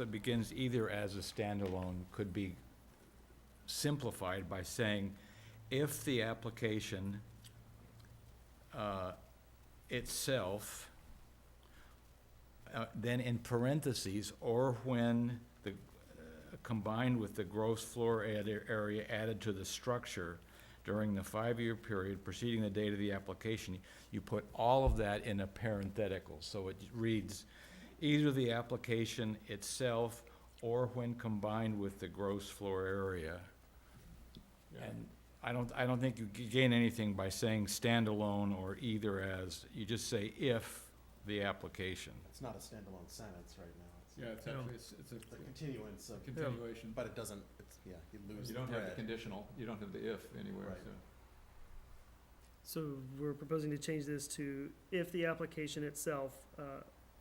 It begins either as a standalone, could be simplified by saying, if the application uh, itself, uh, then in parentheses, or when the, uh, combined with the gross floor ad- area added to the structure during the five-year period preceding the date of the application, you put all of that in a parenthetical, so it reads, either the application itself or when combined with the gross floor area. And I don't, I don't think you g- gain anything by saying standalone or either as, you just say if the application. It's not a standalone sentence right now. Yeah, it's No. actually, it's, it's It's a a continuance of, continuation, but it doesn't, it's, yeah, you lose you the don't have the thread. conditional, you don't have the if anywhere, Right. so. So we're proposing to change this to if the application itself, uh,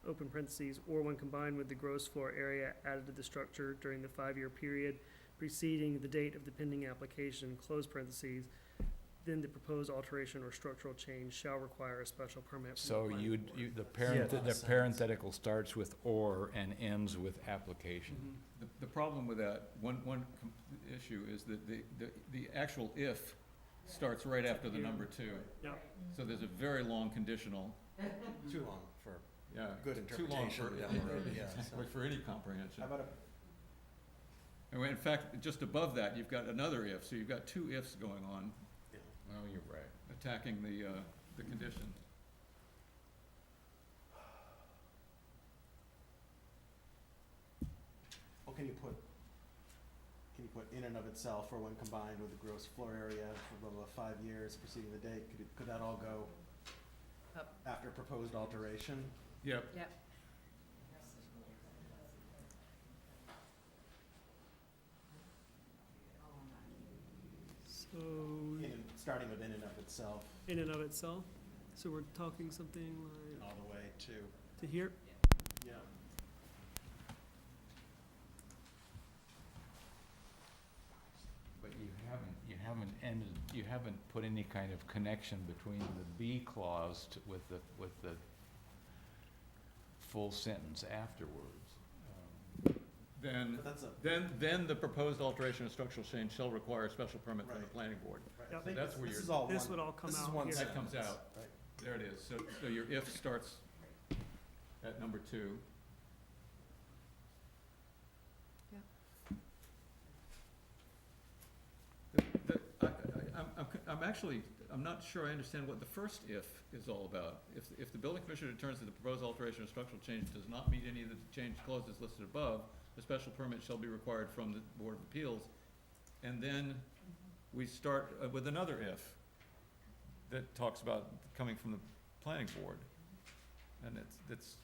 open parentheses, or when combined with the gross floor area added to the structure during the five-year period preceding the date of the pending application, close parentheses, then the proposed alteration or structural change shall require a special permit. from the So planning you, board. you, the parent, Yeah. the parenthetical starts with or and ends with application. Mhm. The, the problem with that, one, one com- issue is that the, the, the actual if starts right after the number two. Yeah. So there's a very long conditional, Too long for yeah. good too long for- interpretation down the road, yeah. so. For any comprehension. How about a And in fact, just above that, you've got another if, so you've got two ifs going on, you know, Oh, you're right. attacking the, uh, the condition. Well, can you put, can you put in and of itself, or when combined with the gross floor area for blah, blah, five years preceding the date, could, it- could that all go Up. after proposed alteration? Yep. Yep. So In, and- starting with in and of itself, in and of itself, so we're talking something and like all the way to, to here? yeah. But you haven't, you haven't ended, you haven't put any kind of connection between the B clause to- with the, with the full sentence afterwards. Um, Then, But that's a, then, then the proposed alteration or structural change shall require a special permit from the Right. planning board. right, I Yep. think That's where this you're- is all one. This would all come This is out one here. That comes sentence, out. right. There it is. So, so your if starts at number two. Yep. The- the- I, I, I'm, I'm c- I'm actually, I'm not sure I understand what the first if is all about. If, if the building commissioner determines that the proposed alteration or structural change does not meet any of the change clauses listed above, a special permit shall be required from the Board of Appeals. And then we start uh, with another if that talks about coming from the planning board. And it's, it's,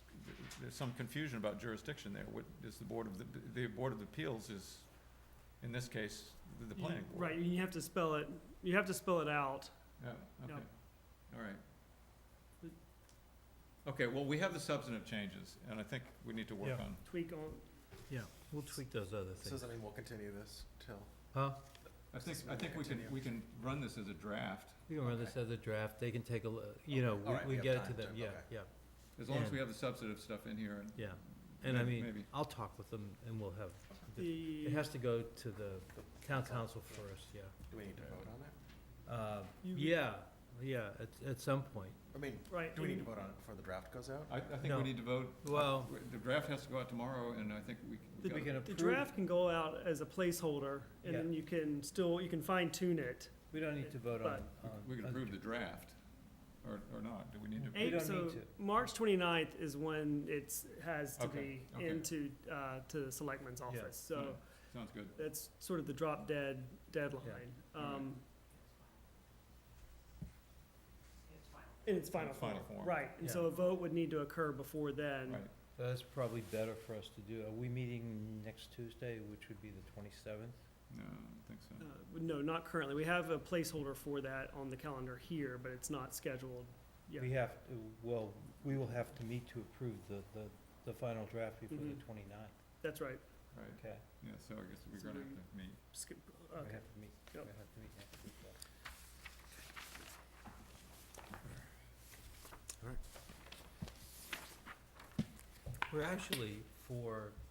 there's some confusion about jurisdiction there. What is the Board of, the, the Board of Appeals is, in this case, the- the You- planning board. Right, you have to spell it, you have to spell it out. Yeah, okay, Yep. all right. Okay, well, we have the substantive changes, and I think we need to work Yeah. on, Tweak on, Yeah, we'll tweak those other So things. does that mean we'll continue this till? Huh? I think, I think we can, we can run this as a draft, We can run this as a draft, they can take a, lo- you know, All right, we, we we have get it to time them, to- yeah, okay. yeah, as long as we And- have the substantive stuff in here and. yeah. And I may- mean, Maybe, I'll talk with them and we'll have, the, it has to go to the town council first, yeah. Do we need to vote on it? Uh, You- yeah, yeah, at, at some point. I mean, right, do we need to in- vote on it before the draft goes out? I, I think No. we need to vote. Well- The draft has to go out tomorrow, and I think we. The- gotta- We can the approve, it. draft can go out as a placeholder, and then you can still, you can fine tune it. we don't need to vote on, but- on. We can on- approve the draft, or, or not, do we need to? We Eight, don't so, need to. March twenty-ninth is when it's, has to Okay, be okay. into, uh, to the selectman's office, so Alright, Sounds good. that's sort of the drop dead deadline. Alright. Um. In its final Its final form, form. right, and so Yeah. a vote would need to occur before then, Right, So That's probably better for us to do. Are we meeting next Tuesday, which would be the twenty-seventh? no, I don't think so. Uh, No, not currently. We have a placeholder for that on the calendar here, but it's not scheduled. Yeah. We have to, well, we will have to meet to approve the, the, the final draft before the Mhm. 29th. That's right. Right, okay? yeah, so I guess we're So gonna we- have to meet. Skip- We okay. have to meet, we Yep. have to meet next week. though. We're actually, for